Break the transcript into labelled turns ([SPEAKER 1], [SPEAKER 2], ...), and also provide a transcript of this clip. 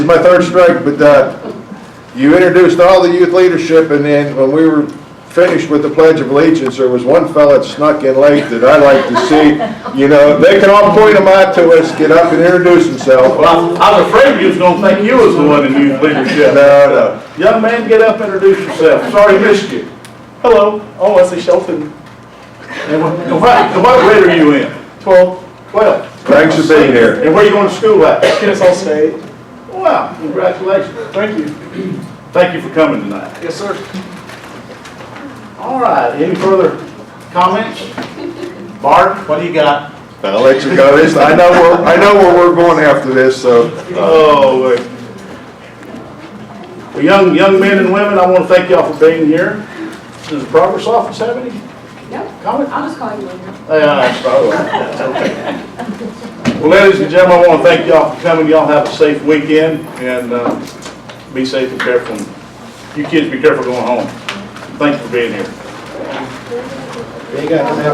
[SPEAKER 1] It's my third strike, but uh, you introduced all the youth leadership, and then when we were finished with the Pledge of Allegiance, there was one fella that snuck in late that I like to see, you know, they can all point them out to us, get up and introduce themselves.
[SPEAKER 2] Well, I I was afraid you was gonna think you was the one in youth
[SPEAKER 1] No,
[SPEAKER 2] leadership.
[SPEAKER 1] no,
[SPEAKER 2] Young man, get up, introduce yourself. Sorry missed you. Hello. Oh, I see Shelton. And what, and what- and what grade are you in? Twelve. Twelve.
[SPEAKER 1] thanks for being here.
[SPEAKER 2] And where you going to school at?
[SPEAKER 3] Kennesaw State.
[SPEAKER 2] Wow, congratulations. Thank you. Thank you for coming tonight.
[SPEAKER 3] Yes, sir.
[SPEAKER 2] All right, any further comments? Bart, what do you got?
[SPEAKER 1] I'll let you go, this, I know where, I know where we're going after this, so.
[SPEAKER 2] Oh, wait. Well, young, young men and women, I want to thank y'all for being here. Does the progress office have any
[SPEAKER 4] No,
[SPEAKER 2] comments?
[SPEAKER 4] I'll just call you later.
[SPEAKER 2] Yeah, it's probably- that's okay. Well, ladies and gentlemen, I want to thank y'all for coming. Y'all have a safe weekend and uh, be safe and careful. You kids be careful going home. Thank you for being here.